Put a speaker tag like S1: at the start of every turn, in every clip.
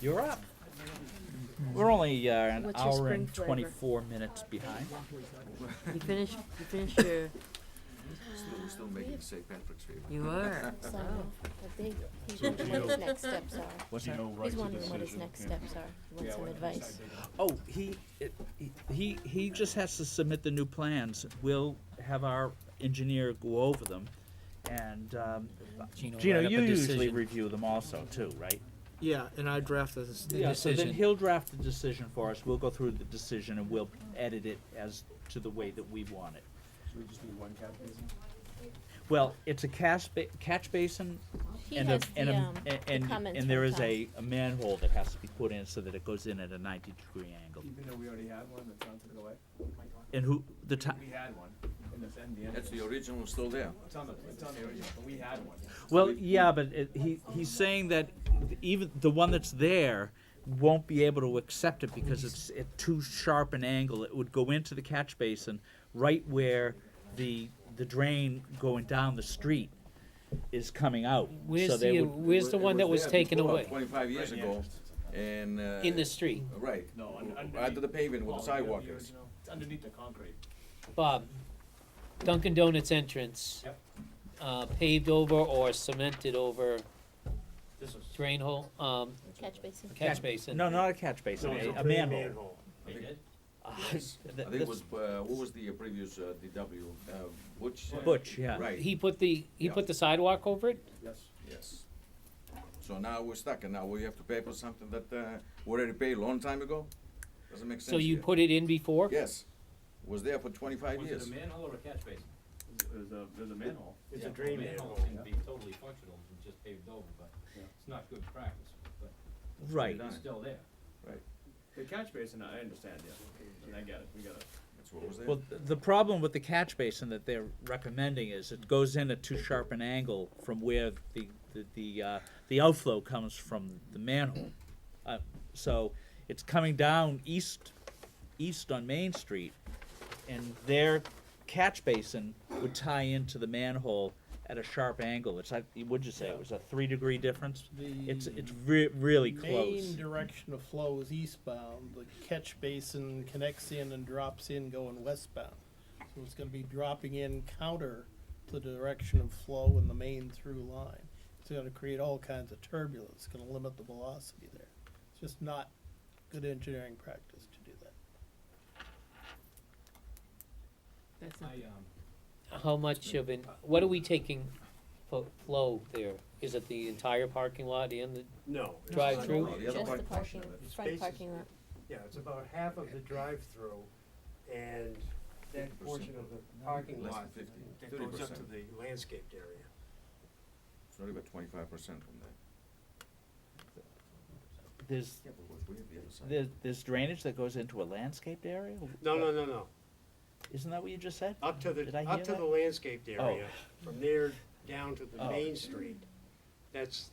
S1: You're up. We're only uh, an
S2: What's your
S1: hour
S2: spring
S1: and
S2: flavor?
S1: 24 minutes behind.
S3: You finished, you finished your,
S4: Still, still
S1: Um,
S4: making St. Patrick's Day.
S3: you were.
S5: So, what they, he's wondering what his next steps are.
S1: What's that?
S5: He's wondering what his next steps are. He wants some advice.
S1: Oh, he, it- he, he just has to submit the new plans. We'll have our engineer go over them. And um,
S6: Gino,
S1: Gino,
S6: write up
S1: you
S6: a
S1: usually
S6: decision.
S1: review them also too, right?
S7: Yeah, and I drafted this.
S1: Yeah, so then
S6: decision.
S1: he'll draft the decision for us. We'll go through the decision and we'll edit it as to the way that we want it.
S8: Should we just do one cat basin?
S1: Well, it's a catch, ba- catch basin
S5: He
S1: and a,
S5: has
S1: and
S5: the,
S1: a,
S5: um,
S1: and,
S5: the um,
S1: and,
S5: comments
S1: and there
S5: from
S1: is
S5: Tom.
S1: a, a manhole that has to be put in so that it goes in at a ninety degree angle.
S8: Even though we already had one, the town took it away.
S1: And who, the
S8: We-
S1: ti-
S8: We had one, in the, in the end.
S4: That's the original still there.
S8: It's on the, it's on the original, but we had one.
S1: well, yeah, but it, he, he's saying that even the one that's there won't be able to accept it because it's at too sharp an angle. It would go into the catch basin right where the, the drain going down the street is coming out. So
S6: Where's
S1: they
S6: the,
S1: would-
S6: where's the
S4: It
S6: one that was
S4: there
S6: taken
S4: before,
S6: away?
S4: Twenty-five years ago, and, uh.
S6: In the street?
S4: Right.
S8: No, un- underneath.
S4: Under the pavement with the
S8: Well, yeah,
S4: sidewalk is.
S8: original. It's underneath the concrete.
S6: Bob, Dunkin' Donuts entrance.
S8: Yep.
S6: Uh, paved over or cemented over
S8: This was.
S6: drain hole, um,
S5: Catch basin.
S6: catch basin?
S1: No, not a catch basin, a, a manhole.
S8: They did?
S6: Uh,
S1: Th-
S4: I think it
S1: this-
S4: was, uh, who was the previous, uh, DW, uh, Butch?
S1: Butch, yeah.
S4: Right,
S6: He put the, he
S4: Yeah.
S6: put the sidewalk over it?
S8: Yes.
S4: yes. So now we're stuck, and now we have to pay for something that, uh, we already paid a long time ago? Doesn't make sense.
S6: So you
S4: here.
S6: put it in before?
S4: Yes, was there for twenty-five years.
S9: manhole or a catch basin?
S8: It was a, it was a manhole.
S7: It's a drain
S9: Manhole can be totally functional and just paved over, but
S8: Yeah.
S9: it's not good practice, but
S1: Right.
S4: Done
S9: it's
S4: it.
S9: still there.
S8: The catch basin, I understand, yeah, and I get it, we got it.
S4: That's what was there.
S1: Well, th- the problem with the catch basin that they're recommending is it goes in at too sharp an angle from where the, the, the, uh, the outflow comes from the manhole. Uh, so it's coming down east, east on Main Street, and their catch basin would tie into the manhole at a sharp angle. It's like, would you say it was a three degree difference? It's, it's re- really close.
S7: Mm. Main direction of flow is eastbound. The catch basin connects in and drops in going westbound. So it's gonna be dropping in counter to the direction of flow in the main through line. It's gonna create all kinds of turbulence. It's gonna limit the velocity there. It's just not good engineering practice to do that.
S3: That's
S9: I,
S3: not-
S9: um,
S6: How much of an, what are we taking for flow there? Is it the entire parking lot and the
S10: No. it's-
S6: drive-through?
S4: No, the
S5: Just
S4: other
S5: the
S4: part-
S5: parking,
S10: It's
S5: front
S10: basis.
S5: parking lot.
S10: Yeah, it's about half of the drive-through and that portion of the parking
S4: Less than
S10: lot
S4: 50,
S10: that
S4: 30%.
S10: goes up to the landscaped area.
S4: It's not about twenty-five percent from there.
S1: There's,
S4: Yeah, but what's weird, the other side.
S1: there's, there's drainage that goes into a landscaped area?
S10: No, no, no, no,
S1: Isn't that what you just said?
S10: up to
S1: Did
S10: the,
S1: I hear
S10: up to
S1: that?
S10: the landscaped area, from there down to the
S1: Oh.
S10: main street. That's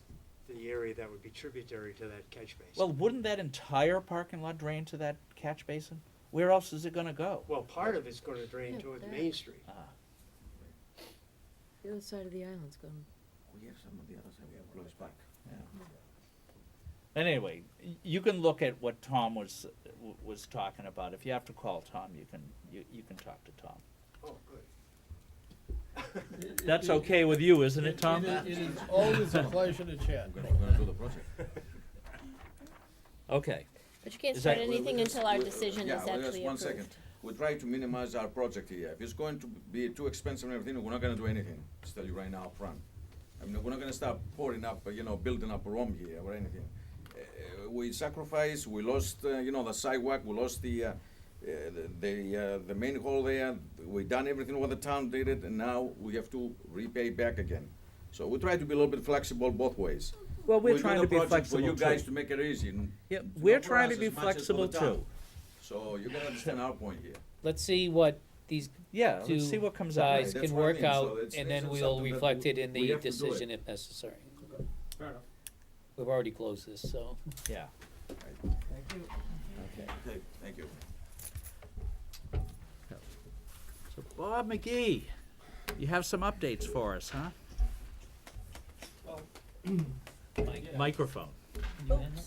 S10: the area that would be tributary to that catch basin.
S1: Well, wouldn't that entire parking lot drain to that catch basin? Where else is it gonna go?
S10: Well, part of it's gonna drain
S5: Yeah,
S10: toward
S5: there.
S10: Main Street.
S3: The other side of the island's gone.
S4: We have some on the other side, we have close back.
S1: And anyway, y- you can look at what Tom was, w- was talking about. If you have to call Tom, you can, you, you can talk to Tom.
S10: Oh, good.
S1: That's okay with you, isn't
S7: It-
S1: it, Tom?
S7: It is- it is always a pleasure to chat.
S4: I'm gonna, we're gonna do the project.
S1: Okay.
S5: But you can't
S1: Is
S5: start
S1: that-
S5: anything
S4: We're just-
S5: until our
S4: we're-
S5: decision
S4: yeah,
S5: is
S4: well, just
S5: actually
S4: one second.
S5: approved.
S4: We're trying to minimize our project here. If it's going to be too expensive and everything, we're not gonna do anything, just tell you right now upfront. I mean, we're not gonna start pouring up, you know, building up Rome here or anything. Uh, We sacrificed, we lost, uh, you know, the sidewalk, we lost the, uh, uh, the- the, uh, the main hall there. We done everything what the town did it, and now we have to repay back again. So we try to be a little bit flexible both ways.
S1: Well, we're
S4: We do
S1: trying
S4: the
S1: to be
S4: project
S1: flexible
S4: For you guys
S1: too.
S4: to make it easy. and
S1: Yeah,
S4: not
S1: we're
S4: for
S1: trying
S4: us
S1: to be
S4: as much as for the
S1: flexible
S4: town.
S1: too.
S4: So you gotta understand our point here.
S6: Let's see what these
S1: Yeah,
S6: two
S1: let's see what comes out.
S6: guys
S4: Right, that's
S6: can
S4: what I
S6: work
S4: mean, so
S6: out,
S4: it's-
S6: and
S4: it's
S6: then
S4: just
S6: we'll
S4: something that
S6: reflect it in
S4: we
S6: the
S4: have to do it.
S6: decision if necessary.
S8: Fair enough.
S6: We've already closed this, so.
S1: Yeah.
S4: Okay, thank you.
S1: So Bob McGee, you have some updates for us, huh? Microphone.
S5: Oh,
S2: Oops.